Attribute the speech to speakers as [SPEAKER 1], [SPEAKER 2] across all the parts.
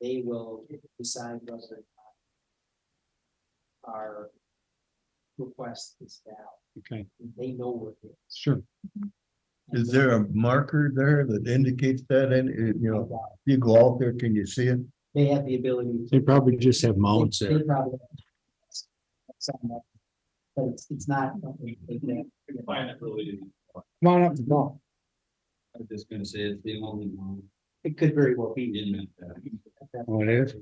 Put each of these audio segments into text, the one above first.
[SPEAKER 1] they will decide whether. or not Our request is valid,
[SPEAKER 2] Okay,
[SPEAKER 1] they know what it is.
[SPEAKER 2] sure.
[SPEAKER 3] Is there a marker there that indicates that, and, uh, you know, you go out there, can you see it?
[SPEAKER 1] They have the ability.
[SPEAKER 2] They
[SPEAKER 1] to.
[SPEAKER 2] probably just have mounts
[SPEAKER 1] They
[SPEAKER 2] there.
[SPEAKER 1] probably. Something like- But it's, it's not. something they can-
[SPEAKER 4] Find it really,
[SPEAKER 2] Come on up the ball.
[SPEAKER 4] I'm just gonna say it's the only one
[SPEAKER 1] It could very well
[SPEAKER 4] he
[SPEAKER 1] be.
[SPEAKER 4] didn't. uh,
[SPEAKER 2] Oh, it is?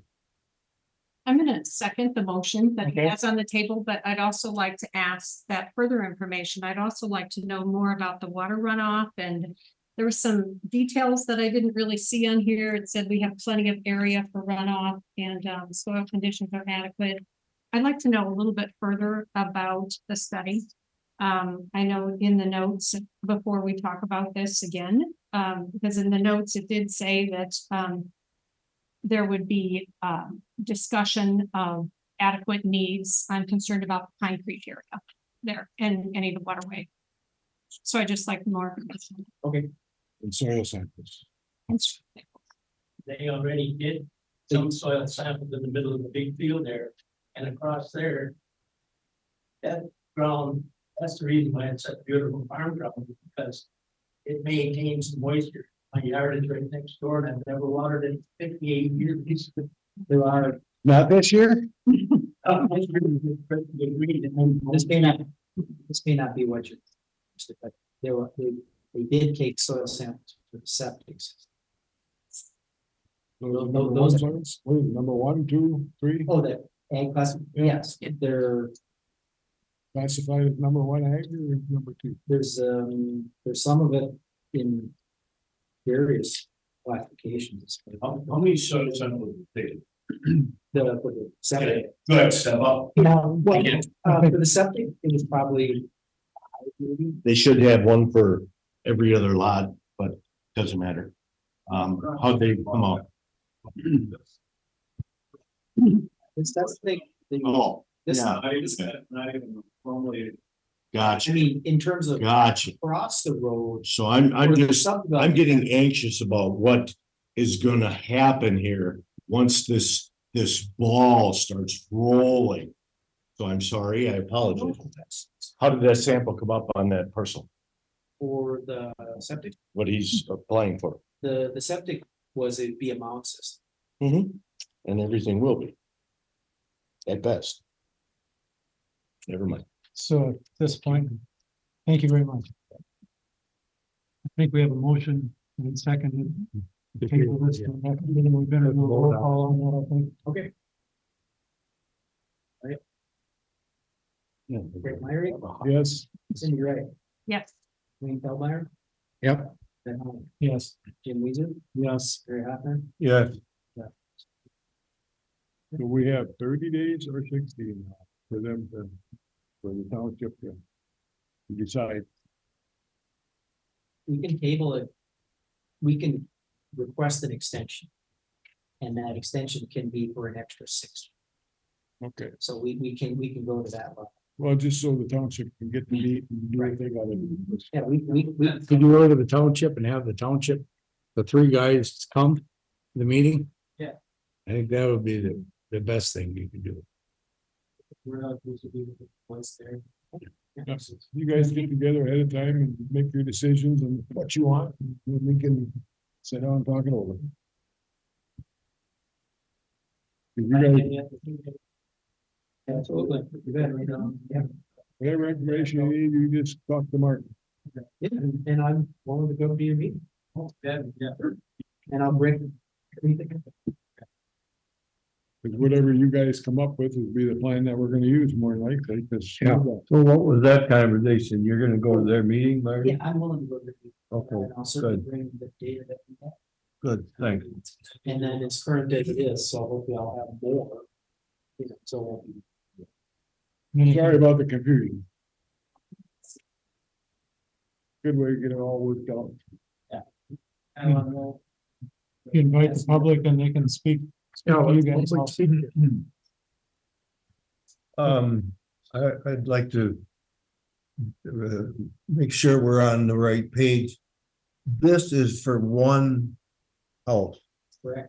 [SPEAKER 5] I'm gonna second the motion that he
[SPEAKER 2] Okay.
[SPEAKER 5] has on the table, but I'd also like to ask that further information. I'd also like to know more about the water runoff and. There were some details that I didn't really see on here. It said we have plenty of area for runoff and um soil conditions are adequate. I'd like to know a little bit further about the study. Um, I know in the notes before we talk about this again, um, because in the notes it did say that um. There would be um discussion of adequate needs. I'm concerned about the Pine Creek area there and any of the waterway. So I just like more. information.
[SPEAKER 2] And soil samples.
[SPEAKER 5] It's-
[SPEAKER 6] they already did some soil samples in the middle of the big field there and across there. That ground, that's the reason why it's such beautiful farm ground, because it maintains the moisture. My yard is right next door and I've never watered it in fifty-eight years.
[SPEAKER 1] There are,
[SPEAKER 2] Not this year?
[SPEAKER 1] Oh,
[SPEAKER 6] Uh, it's really good for the green and
[SPEAKER 1] this may not, this may not be what you're. but There were, they, they did take soil samples for the septic system. Those- those- those
[SPEAKER 2] ones, what is it, number one, two, three,
[SPEAKER 1] Oh, that ag class, yes, there,
[SPEAKER 2] classified as number one ag or number two?
[SPEAKER 1] there's, um, there's some of it in various classifications.
[SPEAKER 4] How, how many soil samples did
[SPEAKER 1] The, for the
[SPEAKER 4] they
[SPEAKER 1] septic.
[SPEAKER 4] take? Go ahead, step up.
[SPEAKER 1] Um, well,
[SPEAKER 4] Again.
[SPEAKER 1] uh, for the septic, it was probably. five, maybe.
[SPEAKER 3] They should have one for every other lot, but doesn't matter. Um, how they come out.
[SPEAKER 1] It's, that's the thing. the-
[SPEAKER 3] Oh,
[SPEAKER 1] This,
[SPEAKER 3] yeah.
[SPEAKER 1] I
[SPEAKER 4] Not even, not even formally.
[SPEAKER 3] gotcha,
[SPEAKER 1] mean, in terms of
[SPEAKER 3] gotcha.
[SPEAKER 1] across the road.
[SPEAKER 3] So I'm, I'm
[SPEAKER 1] or the
[SPEAKER 3] just, I'm
[SPEAKER 1] subdivision,
[SPEAKER 3] getting anxious about what is gonna happen here once this, this ball starts rolling. So I'm sorry, I apologize. How did that sample come up on that parcel,
[SPEAKER 1] For the septic,
[SPEAKER 3] what he's applying for?
[SPEAKER 1] the, the septic was a be a mound system.
[SPEAKER 3] Mm-hmm. And everything will be. At best. Never mind.
[SPEAKER 7] So at this point, thank you very much. I think we have a motion and second. to table this to the next meeting. We better do a roll call on that, I think.
[SPEAKER 1] Greg Myrie,
[SPEAKER 2] Yes.
[SPEAKER 1] Cindy Wright,
[SPEAKER 5] Yes.
[SPEAKER 1] Wayne Feldmeyer.
[SPEAKER 2] Yep.
[SPEAKER 1] Ben Holland,
[SPEAKER 7] Yes,
[SPEAKER 1] Jim Weezer,
[SPEAKER 2] Yes.
[SPEAKER 1] Gary Hoffman,
[SPEAKER 3] Yeah,
[SPEAKER 2] Do we have thirty days or sixty for them to, for the township to to decide?
[SPEAKER 1] we can table it. We can request an extension. And that extension can be for an extra six.
[SPEAKER 2] Okay,
[SPEAKER 1] So we, we can, we can go to that level.
[SPEAKER 2] well, just so the township can get to meet and do what they gotta do.
[SPEAKER 1] Yeah, we, we, we,
[SPEAKER 8] Could you go to the township and have the township, the three guys come to the meeting?
[SPEAKER 1] Yeah.
[SPEAKER 8] I think that would be the, the best thing you could do.
[SPEAKER 1] we're not supposed to be the ones there.
[SPEAKER 2] Yes, You guys get together ahead of time and make your decisions and what you want, and then we can sit down and talk it over. If you guys-
[SPEAKER 1] Absolutely. You bet, right on. Yeah,
[SPEAKER 2] Whatever information you need, you just talk to Martin.
[SPEAKER 1] Yeah, and and I'm willing to go to your meeting. And I'll bring. everything.
[SPEAKER 2] Cause whatever you guys come up with will be the plan that we're gonna use more than likely, cause.
[SPEAKER 3] Yeah. so what was that conversation? You're gonna go to their meeting,
[SPEAKER 1] Yeah,
[SPEAKER 3] Larry?
[SPEAKER 1] I'm willing to go to the meeting.
[SPEAKER 3] Okay,
[SPEAKER 1] And I'll certainly bring the data that we have.
[SPEAKER 3] good, thanks.
[SPEAKER 1] And then it's current as it is, so hopefully I'll have more. You know, so. we'll be-
[SPEAKER 2] Sorry about the confusion. Good way to get it all worked out.
[SPEAKER 1] I don't know.
[SPEAKER 7] you invite the public and they can speak. speak to you guys also.
[SPEAKER 3] Um, I, I'd like to. Uh, make sure we're on the right page. This is for one oh, house.
[SPEAKER 1] Correct.